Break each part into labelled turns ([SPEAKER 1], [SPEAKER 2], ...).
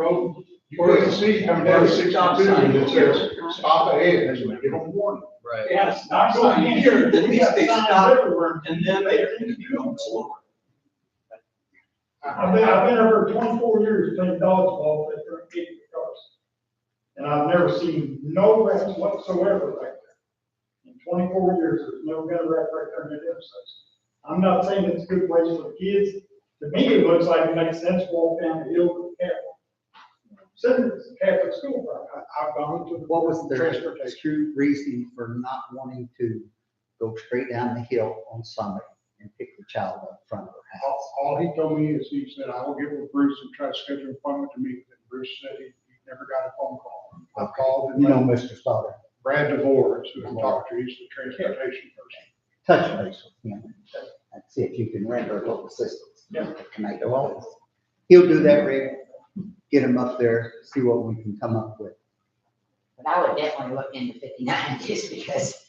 [SPEAKER 1] road,
[SPEAKER 2] You
[SPEAKER 1] or the
[SPEAKER 2] couldn't
[SPEAKER 1] sea
[SPEAKER 2] see
[SPEAKER 1] coming
[SPEAKER 2] coming
[SPEAKER 1] down
[SPEAKER 2] down
[SPEAKER 1] sixty-two,
[SPEAKER 2] stop
[SPEAKER 1] and
[SPEAKER 2] sign,
[SPEAKER 1] it
[SPEAKER 2] it
[SPEAKER 1] says,
[SPEAKER 2] says,
[SPEAKER 1] stop ahead, and you give them warning.
[SPEAKER 3] Right.
[SPEAKER 4] Yes, not going here, we have
[SPEAKER 3] They
[SPEAKER 4] signs
[SPEAKER 3] stop,
[SPEAKER 4] everywhere.
[SPEAKER 3] And then they, you don't slow.
[SPEAKER 4] I've been, I've been over twenty-four years playing dodgeball with their big cars. And I've never seen no wrecks whatsoever right there. In twenty-four years, there's no gun wreck right there in the intersection. I'm not saying it's a good place for kids. To me, it looks like it makes sense to walk down the hill with the Catholic. Sitting at the Catholic school, park.
[SPEAKER 1] I- I've gone to the.
[SPEAKER 5] What was their
[SPEAKER 1] Transportation.
[SPEAKER 5] true reason for not wanting to go straight down the hill on Sunday and pick the child up in front of her
[SPEAKER 1] All,
[SPEAKER 5] house?
[SPEAKER 1] all he told me is he said, I will get with Bruce and try to schedule an appointment to meet. And Bruce said he he never got a phone call. I called
[SPEAKER 5] You know,
[SPEAKER 1] and
[SPEAKER 5] Mr. Stoddard,
[SPEAKER 1] Brad DeVore, is who I talked to, he's the transportation person.
[SPEAKER 5] touch base with him and see if you can render a little assistance.
[SPEAKER 4] Yeah.
[SPEAKER 5] Can I go on? He'll do that, Rick. Get him up there, see what we can come up with.
[SPEAKER 6] But I would definitely look into fifty-nine just because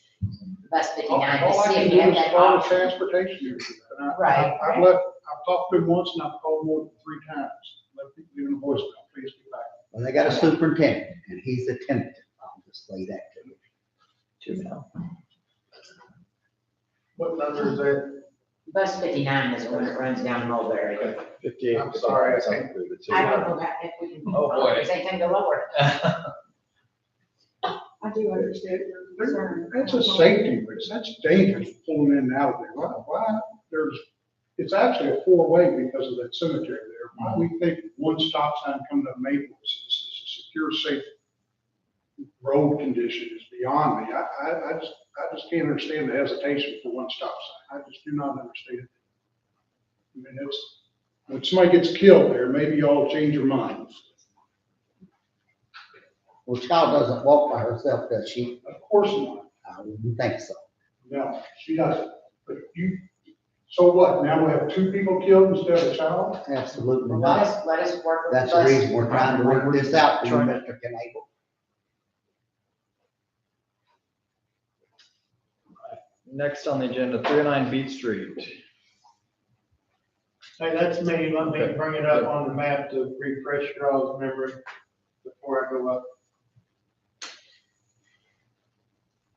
[SPEAKER 6] bus
[SPEAKER 1] All
[SPEAKER 6] fifty-nine,
[SPEAKER 1] all
[SPEAKER 6] to
[SPEAKER 1] I
[SPEAKER 6] see
[SPEAKER 1] can
[SPEAKER 6] if you
[SPEAKER 1] do
[SPEAKER 6] have
[SPEAKER 1] is
[SPEAKER 6] that
[SPEAKER 1] call the
[SPEAKER 6] option.
[SPEAKER 1] transportation. area. And I- I-
[SPEAKER 6] Right.
[SPEAKER 1] I've left, I've talked to him once and I've called more than three times, left, leaving a voicemail, please get back.
[SPEAKER 5] Well, they got a superintendent and he's a tenant. I'll just lay that to you.
[SPEAKER 2] What number is that?
[SPEAKER 6] Bus fifty-nine is the one that runs down Mulberry.
[SPEAKER 2] Fifty-eight. I'm sorry, I think.
[SPEAKER 6] I don't know about if we can,
[SPEAKER 3] Oh, boy.
[SPEAKER 6] they can go lower.
[SPEAKER 7] I do understand your concern.
[SPEAKER 1] That's a safety risk, that's dangerous pulling in and out of there, why, why, there's, it's actually a four-way because of that cemetery there. Why we think one stop sign coming up Maples is a secure, safe road condition is beyond me, I, I, I just, I just can't understand the hesitation for one stop sign, I just do not understand. it. I mean, it's, when somebody gets killed there, maybe y'all change your minds,
[SPEAKER 5] Well, child doesn't walk by herself, does she?
[SPEAKER 1] of course not.
[SPEAKER 5] I wouldn't think so.
[SPEAKER 1] No, she doesn't. But you, so what? Now we have two people killed instead of a child?
[SPEAKER 5] Absolutely
[SPEAKER 6] Well,
[SPEAKER 5] not.
[SPEAKER 6] Let us, let us work with the
[SPEAKER 5] That's the
[SPEAKER 6] bus.
[SPEAKER 5] reason we're trying to work this out, for you, Mr. Knable.
[SPEAKER 3] Next on the agenda, three oh nine Beach Street.
[SPEAKER 2] Hey, that's me, let me bring it up on the map to refresh your all's memory before I go up.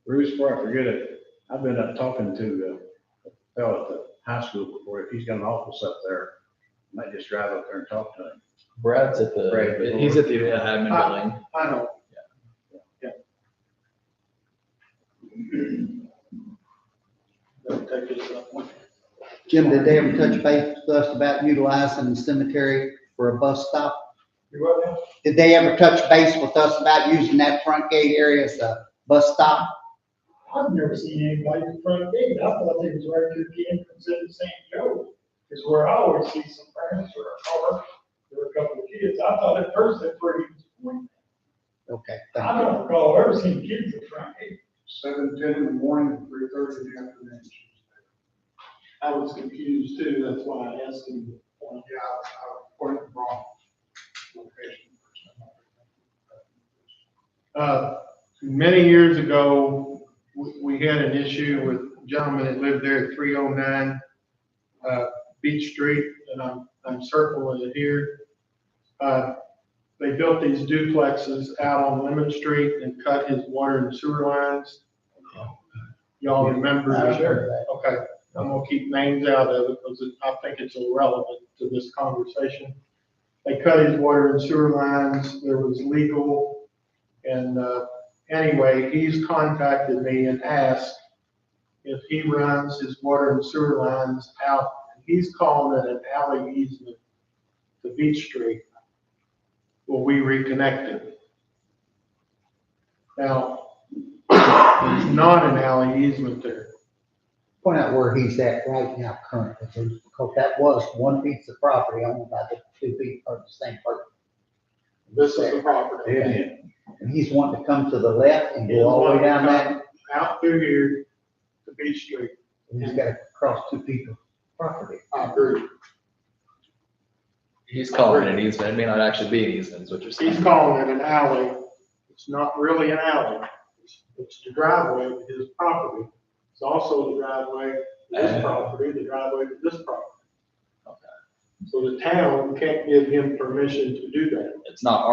[SPEAKER 8] Bruce, before I forget it, I've been up talking to the fellow at the high school before, if he's got an office up there, might just drive up there and talk to him.
[SPEAKER 3] Brad's at the,
[SPEAKER 8] Brad.
[SPEAKER 3] he's at the admin building.
[SPEAKER 2] I know,
[SPEAKER 5] Jim, did they ever touch base with us about utilizing the cemetery for a bus stop?
[SPEAKER 4] You what now?
[SPEAKER 5] Did they ever touch base with us about using that front gate area as a bus stop?
[SPEAKER 4] I've never seen anybody in front of me, I thought they was right to the entrance into St. Joe, is where I always see some parents or a car, or a couple of kids, I thought at first that where he was pointing.
[SPEAKER 5] Okay,
[SPEAKER 4] I
[SPEAKER 5] thank you.
[SPEAKER 4] don't recall ever seeing kids in front of me.
[SPEAKER 1] Seven, ten in the morning, three thirty in the afternoon.
[SPEAKER 2] I was confused too, that's why I asked him.
[SPEAKER 1] Yeah, I I reported wrong location.
[SPEAKER 2] Uh, Many years ago, we- we had an issue with a gentleman that lived there at 309 uh, Beach Street, and I'm I'm circling it here. Uh, They built these duplexes out on Lemon Street and cut his water and sewer lines. Y'all remember?
[SPEAKER 5] I
[SPEAKER 2] that?
[SPEAKER 5] remember that.
[SPEAKER 2] Okay, I'm gonna keep names out of it because it- I think it's irrelevant to this conversation. They cut his water and sewer lines, there was legal. And, uh, anyway, he's contacted me and asked if he runs his water and sewer lines out, he's calling it an alley easement to Beach Street. Will we reconnect it? Now, it's not an alley easement there.
[SPEAKER 5] Point out where he's at right now currently, Bruce, because that was one piece of property owned by the two people, the same person.
[SPEAKER 2] This is the property.
[SPEAKER 8] Yeah.
[SPEAKER 5] And he's wanting to come to the left and go all the way down that,
[SPEAKER 2] Out through here to Beach Street.
[SPEAKER 5] and he's got to cross two people's property.
[SPEAKER 2] I agree.
[SPEAKER 3] He's calling it an easement, it may not actually be an easement, is what you're saying.
[SPEAKER 2] He's calling it an alley. It's not really an alley. It's- It's the driveway of his property. It's also the driveway to this property, the driveway to this property. So the town can't give him permission to do that.
[SPEAKER 3] It's not